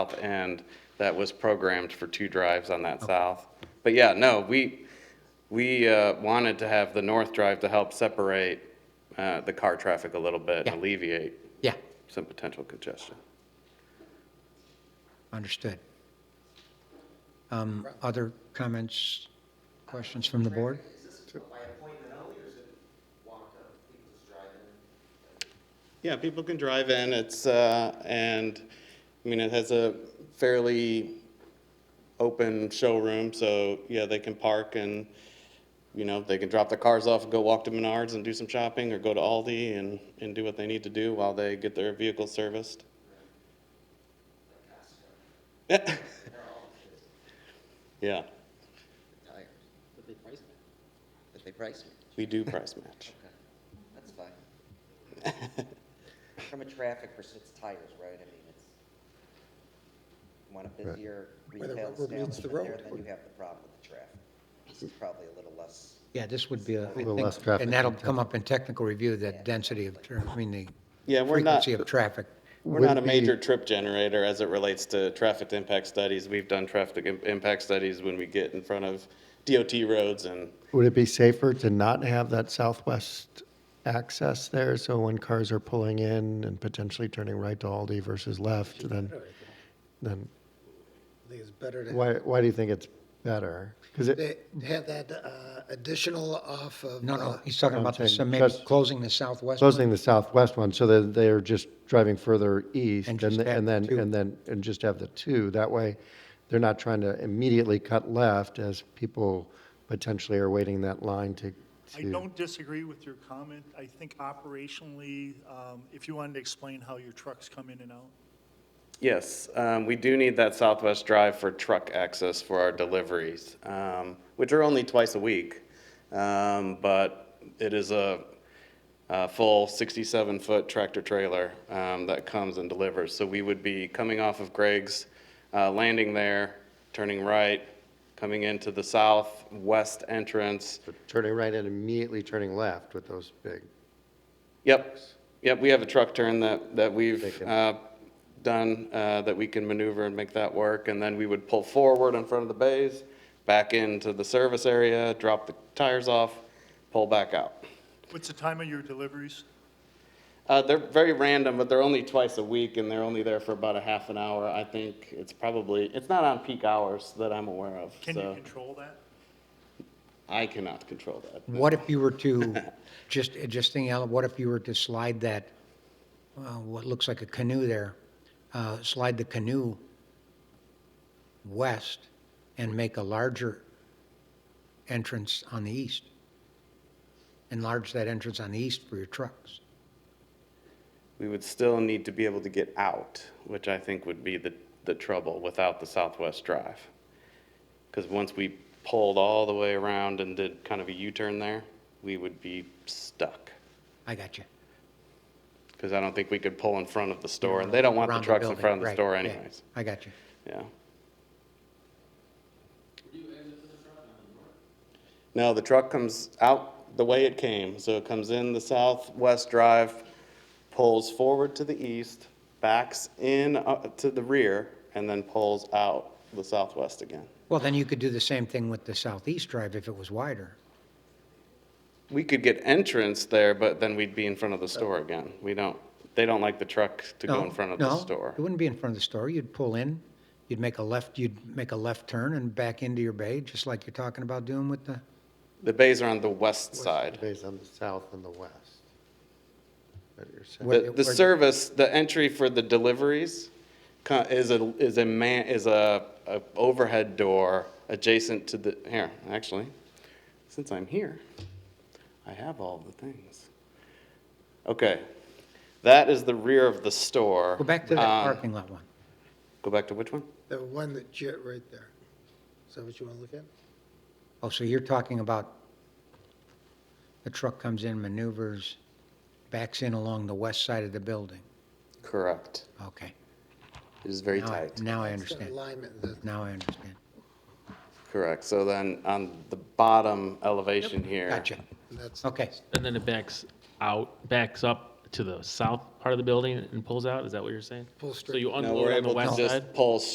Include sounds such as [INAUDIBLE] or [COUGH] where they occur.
south end that was programmed for two drives on that south. But yeah, no, we, we uh, wanted to have the north drive to help separate uh, the car traffic a little bit Yeah. and alleviate Yeah, some potential congestion. understood. Um, Other comments, questions from the board? Yeah, people can drive in, it's, uh, and, I mean, it has a fairly open showroom, so, yeah, they can park and, you know, they can drop their cars off and go walk to Menards and do some shopping, or go to Aldi and, and do what they need to do while they get their vehicle serviced. [LAUGHS] Yeah. Yeah, tires. But they price match. But they price match, we do price match. okay, that's fine. [LAUGHS] From a traffic perspective, it's tires, right, I mean, it's, you want a busier the retail rubber meets the establishment there, road. then you have the problem with the traffic. This is probably a little less, Yeah, this would be, a I little less think, traffic and that'll than come up in technical review, that density of, tra- I mean, the Yeah, we're not. frequency of traffic. We're would not a be- major trip generator as it relates to traffic impact studies. We've done traffic im- impact studies when we get in front of DOT roads and, Would it be safer to not have that southwest access there? So when cars are pulling in and potentially turning right to Aldi versus left, then, then I think it's better to why, why do you think it's better? Because they it, have that uh, additional off of. No, no, uh, he's talking I'm about the, saying so maybe just- closing the southwest. closing the southwest one so that they're just driving further east And and just then, have and then, two. and then, and just have the two. That way, they're not trying to immediately cut left as people potentially are waiting that line to, I to, don't disagree with your comment. I think operationally, um, if you wanted to explain how your trucks come in and out. yes, um, we do need that southwest drive for truck access for our deliveries, um, which are only twice a week. Um, But it is a, a full 67-foot tractor trailer um, that comes and delivers. So we would be coming off of Greg's, uh, landing there, turning right, coming into the southwest entrance, turning right and immediately turning left with those big Yep, yep, we have a truck turn that, that we've Taken. uh, done, uh, that we can maneuver and make that work. And then we would pull forward in front of the bays, back into the service area, drop the tires off, pull back out. What's the time of your deliveries? Uh, They're very random, but they're only twice a week, and they're only there for about a half an hour. I think it's probably, it's not on peak hours that I'm aware of, Can you so control that? I cannot control that. What if you were to, just, just thinking, out, what if you were to slide that, uh, what looks like a canoe there, uh, slide the canoe west and make a larger entrance on the east? Enlarge that entrance on the east for your trucks. We would still need to be able to get out, which I think would be the, the trouble without the Southwest Drive. Because once we pulled all the way around and did kind of a U-turn there, we would be stuck. I got you. Because I don't think we could pull in front of the store, and they don't want the Around trucks in building, front of the right, store yeah, anyways. I got you. Yeah. No, the truck comes out the way it came, so it comes in the southwest drive, pulls forward to the east, backs in uh, to the rear, and then pulls out the southwest again. Well, then you could do the same thing with the southeast drive if it was wider. We could get entrance there, but then we'd be in front of the store again. We don't, they don't like the truck to go No, in front of the no, store. It wouldn't be in front of the store. You'd pull in, you'd make a left, you'd make a left turn and back into your bay, just like you're talking about doing with the, The bays are on the west side. Based on the south and the west. That you're saying. Where- The, the where- service, the entry for the deliveries co- is a, is a man, is a, a overhead door adjacent to the, here, actually, since I'm here, I have all the things. Okay, that is the rear of the store. go back to that Um, parking lot one. Go back to which one? The one that jet right there. Is that what you want to look at? Oh, so you're talking about the truck comes in, maneuvers, backs in along the west side of the building. Correct. Okay. It is very Now I- tight. Now I It's got understand. Alignment, the- Now I understand. Correct. So then on the bottom elevation here. Gotcha. that's, Okay. And then it backs out, backs up to the south part of the building and pulls out? Is that what you're saying? Pull So straight. you No, we're unload on the able to west side? just pull